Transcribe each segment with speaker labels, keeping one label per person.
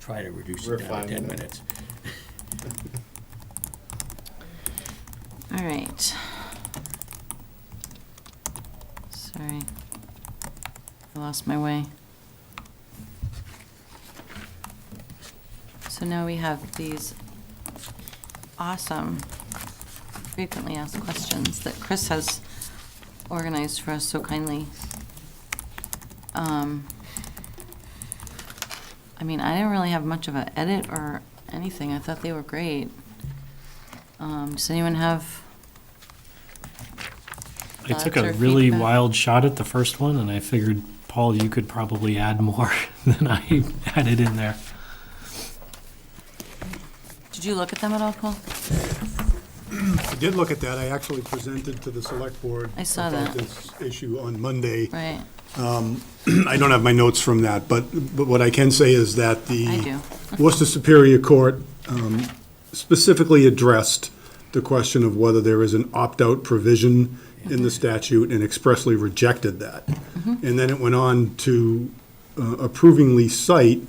Speaker 1: try to reduce
Speaker 2: We're
Speaker 1: it down
Speaker 2: fine
Speaker 1: to ten
Speaker 2: with it.
Speaker 1: minutes.
Speaker 3: All right. Sorry. I lost my way. So now we have these awesome frequently asked questions that Chris has organized for us so kindly. Um, I mean, I didn't really have much of an edit or anything. I thought they were great. Um, Does anyone have?
Speaker 4: I took a
Speaker 3: thoughts or
Speaker 4: really
Speaker 3: feedback?
Speaker 4: wild shot at the first one, and I figured, Paul, you could probably add more than I added in there.
Speaker 3: Did you look at them at all, Paul?
Speaker 5: I did look at that. I actually presented to the select board.
Speaker 3: I saw
Speaker 5: about
Speaker 3: that.
Speaker 5: This issue on Monday.
Speaker 3: Right,
Speaker 5: I don't have my notes from that, but, but what I can say is that the.
Speaker 3: I do.
Speaker 5: Worcester Superior Court um, specifically addressed the question of whether there is an opt-out provision in the statute and expressly rejected that. And then it went on to uh, approvingly cite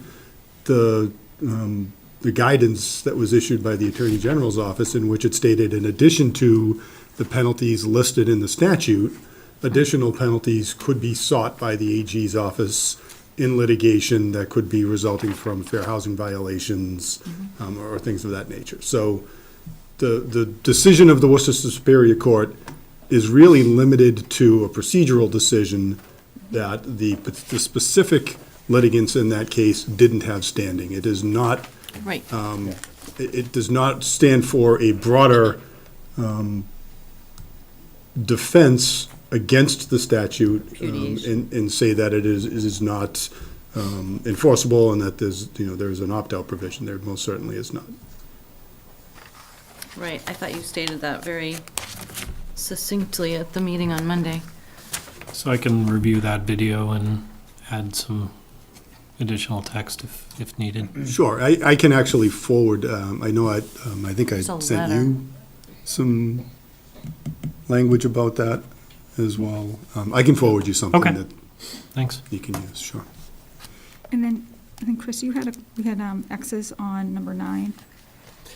Speaker 5: the, um, the guidance that was issued by the Attorney General's office in which it stated, in addition to the penalties listed in the statute, additional penalties could be sought by the AG's office in litigation that could be resulting from fair housing violations um, or things of that nature. So the, the decision of the Worcester Superior Court is really limited to a procedural decision that the, the specific litigants in that case didn't have standing. It is not
Speaker 3: Right,
Speaker 5: it, it does not stand for a broader um, defense against the statute um,
Speaker 3: Repudiation.
Speaker 5: and, and say that it is, it is not um, enforceable and that there's, you know, there's an opt-out provision there. Most certainly is not.
Speaker 3: right. I thought you stated that very succinctly at the meeting on Monday.
Speaker 4: So I can review that video and add some additional text if, if needed.
Speaker 3: Mm.
Speaker 5: Sure, I, I can actually forward, um, I know I, um, I think I
Speaker 3: It's a
Speaker 5: sent
Speaker 3: letter.
Speaker 5: you some language about that as well. Um, I can forward you something
Speaker 4: Okay.
Speaker 5: that
Speaker 4: Thanks.
Speaker 5: you can use, sure.
Speaker 6: And then, I think, Chris, you had, a we had um, X's on number nine.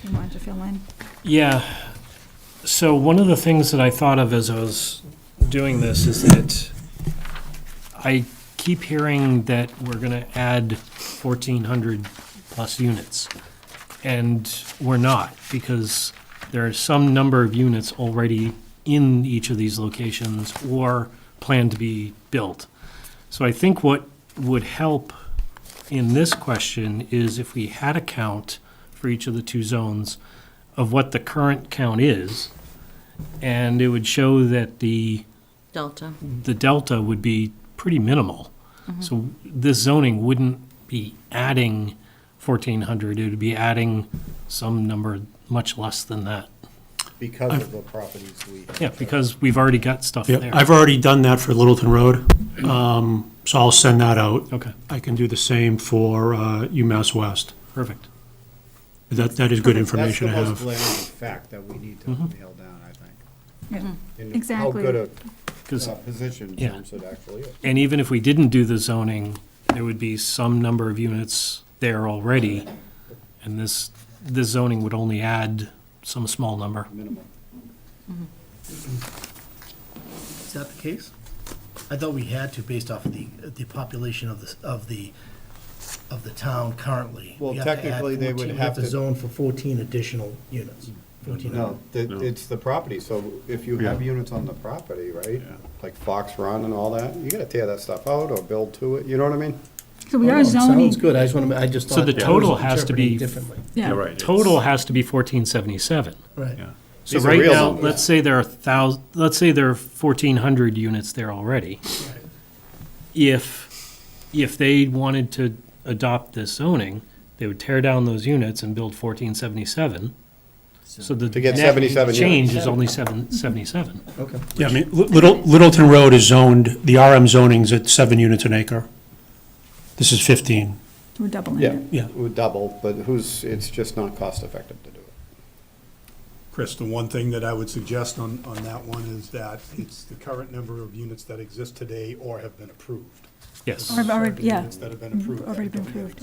Speaker 6: You wanted to fill in.
Speaker 4: Yeah. So one of the things that I thought of as I was doing this is that I keep hearing that we're going to add 1,400 plus units. And we're not, because there are some number of units already in each of these locations or planned to be built. So I think what would help in this question is if we had a count for each of the two zones of what the current count is, and it would show that the,
Speaker 3: Delta.
Speaker 4: the delta would be pretty minimal. So this zoning wouldn't be adding 1,400, it would be adding some number much less than that.
Speaker 2: because of the properties we.
Speaker 4: Yeah, because we've already got stuff
Speaker 7: Yeah,
Speaker 4: there.
Speaker 7: I've already done that for Littleton Road, um, so I'll send that out.
Speaker 4: Okay,
Speaker 7: I can do the same for uh, UMass West.
Speaker 4: perfect.
Speaker 7: That, that is good
Speaker 2: That's the
Speaker 7: information to
Speaker 2: most
Speaker 7: have.
Speaker 2: glaring fact that we need to
Speaker 4: Mm-hmm.
Speaker 2: nail down, I think.
Speaker 6: Yeah.
Speaker 2: And
Speaker 6: Exactly.
Speaker 2: How good
Speaker 4: 'Cause-
Speaker 2: a uh, position
Speaker 4: Yeah.
Speaker 2: Thompson actually is.
Speaker 4: And even if we didn't do the zoning, there would be some number of units there already, and this, this zoning would only add some small number.
Speaker 2: minimal.
Speaker 8: Is that the case? I thought we had to based off of the, the population of the, of the, of the town currently.
Speaker 2: Well,
Speaker 8: We have to add
Speaker 2: technically, they would
Speaker 8: 14
Speaker 2: have to-
Speaker 8: We have to zone for fourteen additional units, fourteen.
Speaker 2: No, that, it's the property, so if you have units on the property, right? Like Fox Run and all that, you gotta tear that stuff out or build to it, you know what I mean?
Speaker 6: So we
Speaker 2: Oh,
Speaker 6: are zoning.
Speaker 8: Sounds good, I just want to, I just
Speaker 4: So
Speaker 8: thought.
Speaker 4: the
Speaker 8: I was
Speaker 4: total has to be-
Speaker 8: interpreting Differently,
Speaker 6: Yeah.
Speaker 4: Total has to be fourteen seventy-seven.
Speaker 8: right.
Speaker 4: So
Speaker 2: These are
Speaker 4: right
Speaker 2: real
Speaker 4: now,
Speaker 2: numbers.
Speaker 4: let's say there are thousand, let's say there are fourteen hundred units there already. If, if they wanted to adopt this zoning, they would tear down those units and build fourteen seventy-seven. So the
Speaker 2: To get
Speaker 4: net
Speaker 2: 77 units.
Speaker 4: Change is only seven, seventy-seven.
Speaker 8: Okay.
Speaker 7: Yeah, I mean, Li- Little, Littleton Road is zoned, the RM zoning's at seven units an acre. This is 15.
Speaker 6: We're doubling
Speaker 2: Yeah,
Speaker 6: it.
Speaker 7: Yeah.
Speaker 2: it would double, but who's, it's just not cost effective to do it.
Speaker 5: Chris, the one thing that I would suggest on, on that one is that it's the current number of units that exist today or have been approved.
Speaker 4: Yes.
Speaker 6: Or I've already, yeah.
Speaker 5: Units that have been approved. that
Speaker 6: Already been
Speaker 5: don't yet
Speaker 6: approved.